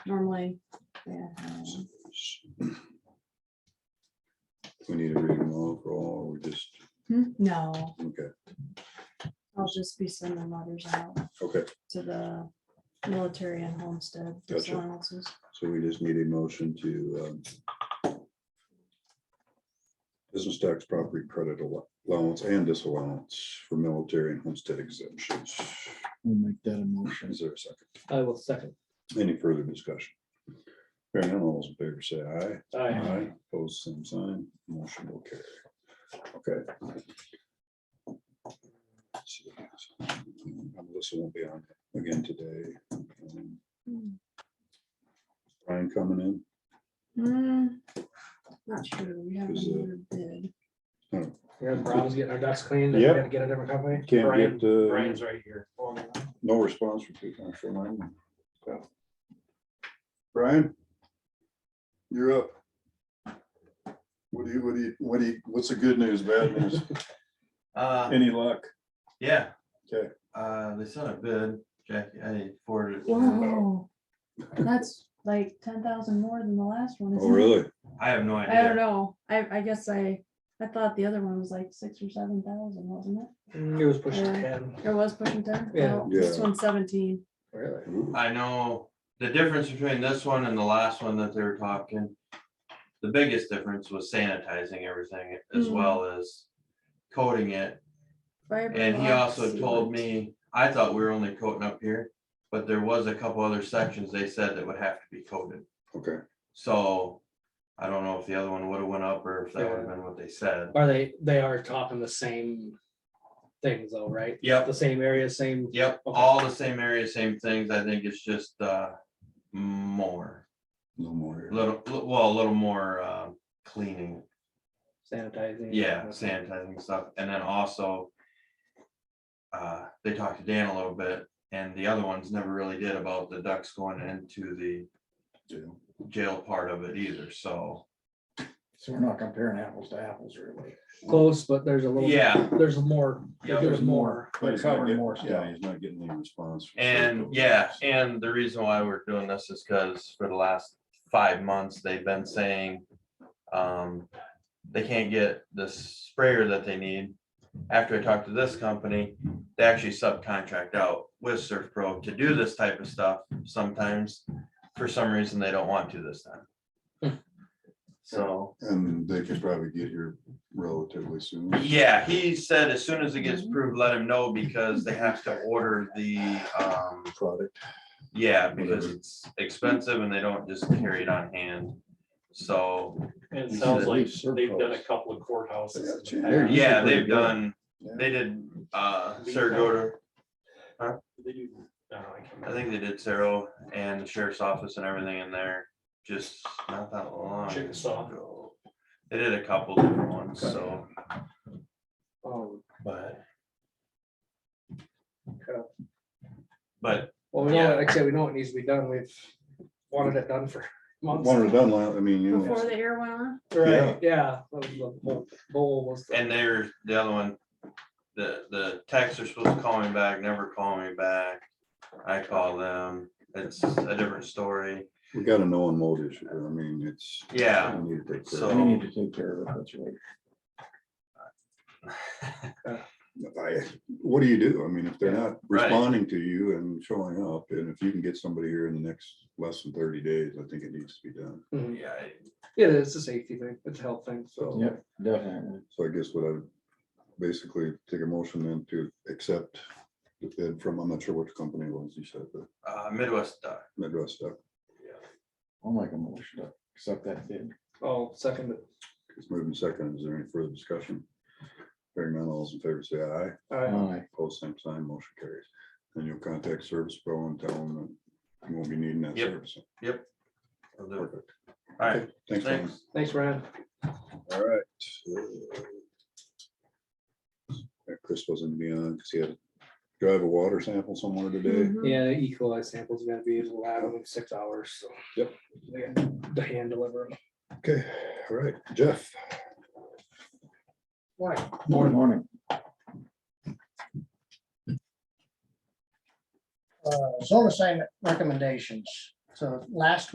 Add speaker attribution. Speaker 1: normally. they're, um,
Speaker 2: We need to read them all for all, or we just,
Speaker 1: hmm, No,
Speaker 2: okay,
Speaker 1: I'll just be sending letters out
Speaker 2: okay,
Speaker 1: to the military and homestead
Speaker 2: Gotcha.
Speaker 1: allowances.
Speaker 2: so we just need a motion to um, business tax property credit allo- allowance and disallowance for military and homestead exemptions.
Speaker 3: We'll make that a motion.
Speaker 2: Is there a second?
Speaker 4: I will second.
Speaker 2: Any further discussion? Hearing none, all those in favor say aye.
Speaker 4: I
Speaker 2: Aye, pose same sign, motion will carry. Okay. Melissa won't be on again today. Um, Brian coming in,
Speaker 1: Hmm, Not sure, we haven't
Speaker 2: Is it-
Speaker 1: even bid.
Speaker 4: We have problems getting our ducks cleaned. and we
Speaker 2: Yep.
Speaker 4: gotta Get a different company.
Speaker 2: can't
Speaker 4: Brian-
Speaker 2: get, the
Speaker 4: Brian's right here. Mm,
Speaker 2: no response from two council nine. Brian? You're up. What do you, what do you, what do you, what's the good news, bad news,
Speaker 5: Uh,
Speaker 2: any luck?
Speaker 5: yeah.
Speaker 2: Okay.
Speaker 5: Uh, they sent a bid, Jackie, I forwarded. it to you.
Speaker 1: Whoa, that's like ten thousand more than the last one.
Speaker 2: Oh,
Speaker 1: isn't it?
Speaker 2: really?
Speaker 5: I have no
Speaker 1: I don't
Speaker 5: idea.
Speaker 1: know, I, I guess I, I thought the other one was like six or seven thousand, wasn't it?
Speaker 4: It was pushing
Speaker 1: Yeah.
Speaker 4: ten.
Speaker 1: It was pushing ten?
Speaker 4: Yeah.
Speaker 1: Well, This
Speaker 2: Yeah.
Speaker 1: one's seventeen.
Speaker 4: Really?
Speaker 2: Ooh,
Speaker 5: I know the difference between this one and the last one that they were talking. The biggest difference was sanitizing everything as
Speaker 1: Mm.
Speaker 5: well as coating it.
Speaker 1: Fiber
Speaker 5: And he
Speaker 1: blocks,
Speaker 5: also
Speaker 1: sealant.
Speaker 5: told me, I thought we were only coating up here, but there was a couple other sections they said that would have to be coated.
Speaker 2: Okay,
Speaker 5: So I don't know if the other one would have went up or if that would have
Speaker 4: Yeah.
Speaker 5: been what they said.
Speaker 4: Are they, they are talking the same things though, right?
Speaker 5: Yep.
Speaker 4: The same area, same.
Speaker 5: Yep,
Speaker 4: Okay.
Speaker 5: all the same area, same things. I think it's just uh more,
Speaker 2: no more.
Speaker 5: little, well, a little more uh, cleaning.
Speaker 4: Sanitizing.
Speaker 5: Yeah, sanitizing stuff. And then also uh, they talked to Dan a little bit and the other ones never really did about the ducks going into the
Speaker 2: Jail.
Speaker 5: jail part of it either. So,
Speaker 3: So we're not comparing apples to apples, really.
Speaker 4: Close, but there's a little.
Speaker 5: yeah.
Speaker 4: There's more.
Speaker 5: Yeah,
Speaker 4: There's more.
Speaker 2: But
Speaker 3: They're
Speaker 2: he's not
Speaker 3: covering
Speaker 2: getting,
Speaker 3: more
Speaker 2: yeah,
Speaker 3: stuff.
Speaker 2: he's not getting any response. from
Speaker 5: And
Speaker 2: Serco.
Speaker 5: yeah, and the reason why we're doing this is because for the last five months, they've been saying um, they can't get the sprayer that they need. After I talked to this company, they actually subcontract out with Surf Pro to do this type of stuff sometimes. For some reason, they don't want to this time. So,
Speaker 2: And they could probably get here relatively soon.
Speaker 5: yeah, he said as soon as it gets approved, let him know because they have to order the um,
Speaker 2: Product.
Speaker 5: Yeah, because
Speaker 2: Whatever.
Speaker 5: it's expensive and they don't just carry it on hand. So,
Speaker 6: And it
Speaker 2: We
Speaker 6: sounds
Speaker 2: should
Speaker 6: like
Speaker 2: leave surplus.
Speaker 6: they've done a couple of courthouses. in the
Speaker 2: They're
Speaker 6: past.
Speaker 5: yeah,
Speaker 2: pretty
Speaker 5: they've
Speaker 2: good.
Speaker 5: done,
Speaker 2: Yeah.
Speaker 5: they did, uh,
Speaker 6: Lead
Speaker 5: Sarah
Speaker 6: time.
Speaker 5: Goder,
Speaker 6: They do, I don't know, I can't
Speaker 5: I
Speaker 6: remember.
Speaker 5: think they did Sarah and the sheriff's office and everything in there, just not that long.
Speaker 6: Chickasaw.
Speaker 5: ago. They did a couple different ones, so,
Speaker 4: Oh,
Speaker 5: but,
Speaker 4: okay.
Speaker 5: but,
Speaker 4: Well, we know,
Speaker 5: Yeah.
Speaker 4: like I said, we know it needs to be done. We've wanted it done for months.
Speaker 2: One or done, I mean, you
Speaker 1: Before
Speaker 2: know,
Speaker 1: the air went on?
Speaker 4: Right, yeah. that was the whole Goal was. to-
Speaker 5: and they're, the other one, the, the techs are supposed to call me back, never call me back. I call them, it's a different story,
Speaker 2: we got a no and mold issue. I mean, it's.
Speaker 5: yeah.
Speaker 2: we need to take care
Speaker 5: So-
Speaker 2: of
Speaker 3: We need to take care of it, that's right.
Speaker 2: it. I- What do you do? I mean, if they're not
Speaker 5: Right.
Speaker 2: responding to you and showing up, and if you can get somebody here in the next less than thirty days, I think it needs to be done.
Speaker 4: Mhm.
Speaker 5: Yeah, I-
Speaker 4: Yeah, it's a safety thing. It's a health thing.
Speaker 2: So.
Speaker 3: Yep, definitely.
Speaker 2: So I guess what I would basically take a motion then to accept the bid from, I'm not sure which company it was, you said, the
Speaker 5: uh, Midwest Duck.
Speaker 2: Midwest stuff.
Speaker 3: I'll make a motion to accept that bid.
Speaker 4: Oh, second,
Speaker 2: It's moving second. Is there any further discussion? Hearing none, all those in favor say aye.
Speaker 4: I,
Speaker 3: Aye.
Speaker 2: Post same sign, motion carries. And you'll contact Service Pro and tell them that you won't be needing that
Speaker 5: Yep.
Speaker 2: service.
Speaker 5: I'll do it.
Speaker 2: Perfect.
Speaker 5: All right,
Speaker 2: Okay, Thanks, Ryan.
Speaker 5: thanks.
Speaker 4: thanks, Ryan.
Speaker 2: All right. Uh, Chris wasn't beyond because he had to drive a water sample somewhere today.
Speaker 1: Mhm.
Speaker 4: Yeah, E. coli samples gotta be in the lab in six hours, so.
Speaker 2: Yep.
Speaker 4: They got to hand deliver them.
Speaker 2: Okay, all right, Jeff.
Speaker 3: Morning, morning.
Speaker 7: uh, zone assignment recommendations. So last